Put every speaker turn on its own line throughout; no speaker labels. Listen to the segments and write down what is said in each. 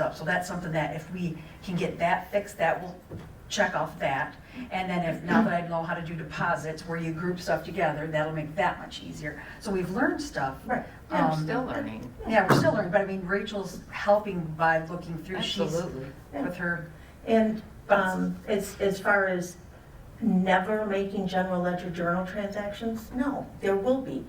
up. So that's something that if we can get that fixed, that will check off that. And then if, now that I know how to do deposits, where you group stuff together, that'll make that much easier. So we've learned stuff.
Right.
Yeah, I'm
Um,
still learning.
Yeah, we're still learning, but I mean, Rachel's helping by looking through. She's
Absolutely.
With her,
And um, as, as far as never making general ledger journal transactions, no, there will be.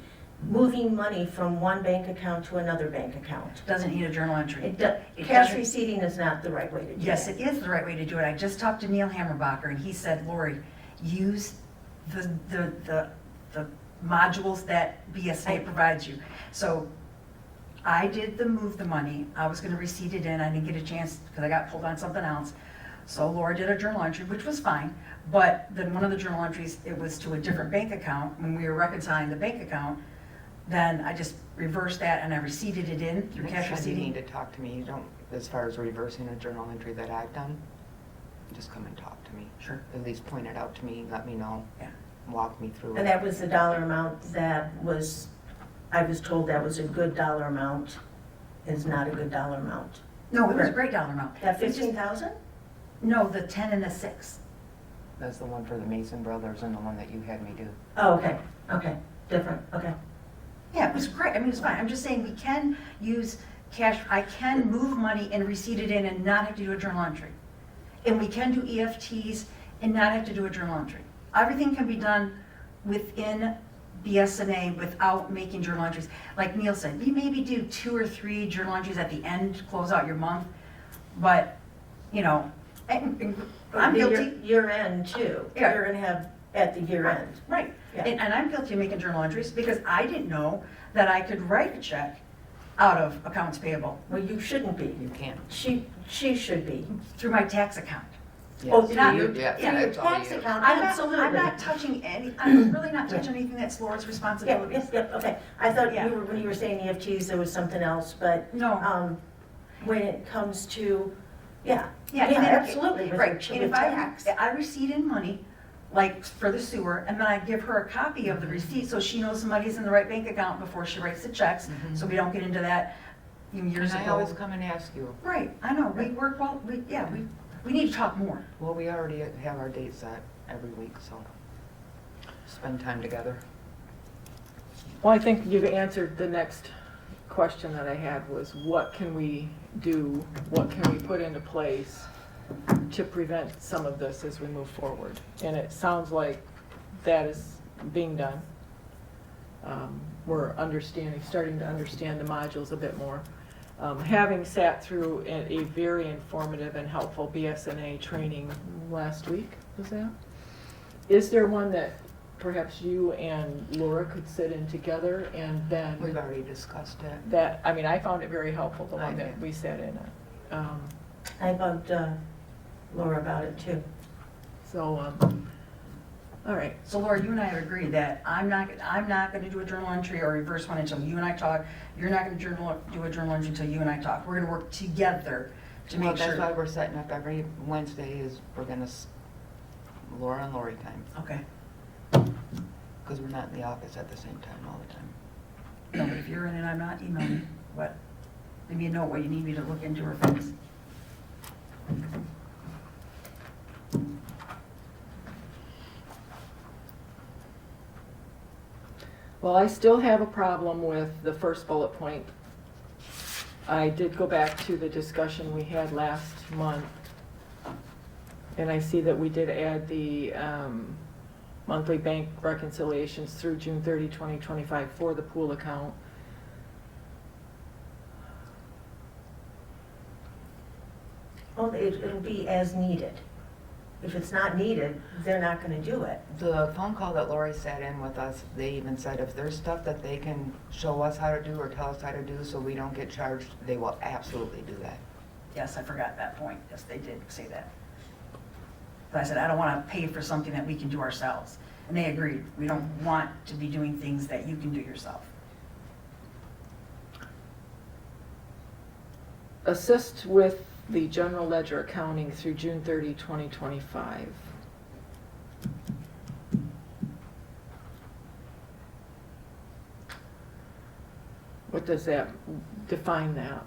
Moving money from one bank account to another bank account.
doesn't need a journal entry.
It do-
It
Cash
doesn't-
receipting is not the right way to do it.
Yes, it is the right way to do it. I just talked to Neil Hammerbacher and he said, Lori, use the, the, the, the modules that BSA provides you. So I did the move the money. I was gonna receipt it in. I didn't get a chance because I got pulled on something else. So Laura did a journal entry, which was fine, but then one of the journal entries, it was to a different bank account. When we were reconciling the bank account, then I just reversed that and I receipted it in through
Next
cash
time you need
receipting.
to talk to me, you don't, as far as reversing a journal entry that I've done, just come and talk to me.
Sure.
At least point it out to me, let me know,
Yeah.
walk me through
And
it.
that was the dollar amount that was, I was told that was a good dollar amount, is not a good dollar amount.
No, it was a great dollar amount.
That
It's just-
fifteen thousand?
No, the 10 and the 6.
That's the one for the Mason Brothers and the one that you had me do.
Oh, okay, okay, different, okay.
Yeah, it was great, I mean, it was fine, I'm just saying, we can use cash, I can move money and receipt it in and not have to do a journal entry. And we can do EFTs and not have to do a journal entry. Everything can be done within BSNA without making journal entries. Like Neil said, you maybe do two or three journal entries at the end, to close out your month, but, you know, and- and I'm
The year-
guilty.
Year end too.
Yeah.
You're gonna have at the year end.
Right,
Yeah.
and, and I'm guilty of making journal entries because I didn't know that I could write a check out of accounts payable
Well, you shouldn't be.
You can't.
She, she should be.
through my tax account.
Oh,
Yes,
not-
you- Yeah,
through your
that's all
tax
you.
account,
I'm not, I'm
absolutely.
not touching any, I'm really not touching anything that's Laura's
Yeah,
responsibility.
yes, yep, okay. I thought
Yeah.
you were, when you were saying EFTs, there was something else, but,
No,
um, when it comes to, yeah.
yeah, and then-
absolutely, with
right,
the-
and
with
if I,
tax.
if I receipt in money, like for the sewer, and then I give her a copy of the receipt so she knows the money's in the right bank account before she writes the checks,
Mhm.
so we don't get into that you know, years
And I always
ago.
come and ask you,
Right, I know, we work well, we, yeah, we, we need to talk more.
well, we already have our dates set every week, so spend time together.
Well, I think you've answered the next question that I had was what can we do? What can we put into place to prevent some of this as we move forward? And it sounds like that is being done. Um, We're understanding, starting to understand the modules a bit more. Um, Having sat through a a very informative and helpful BSNA training last week, was that? Is there one that perhaps you and Laura could sit in together and
We've
then
already discussed it.
Mm-hmm. that, I mean, I found it very helpful, the one
I
that
did.
we sat in. on. Um,
I bugged uh, Laura about it too.
So, um, all right,
So Laura, you and I have agreed that I'm not, I'm not gonna do a journal entry or reverse one until you and I talk. You're not gonna journal, do a journal entry until you and I talk. We're gonna work together to
Well,
make
that's why
sure.
we're setting up every Wednesday is we're gonna, s- Laura and Lori time,
Okay,
because we're not in the office at the same time all the time.
no, but if you're in and I'm not, email me, what, leave me a note what you need me to look into or fix.
well, I still have a problem with the first bullet point. I did go back to the discussion we had last month. And I see that we did add the, um, monthly bank reconciliations through June 30, 2025, for the pool account.
Well, it- it'll be as needed. If it's not needed, they're not gonna do it.
The phone call that Lori sat in with us, they even said if there's stuff that they can show us how to do or tell us how to do so we don't get charged, they will absolutely do that.
Yes, I forgot that point, yes, they did say that. But I said, I don't wanna pay for something that we can do ourselves. And they agreed, we don't want to be doing things that you can do yourself.
assist with the general ledger accounting through June 30, 2025. What does that, define that?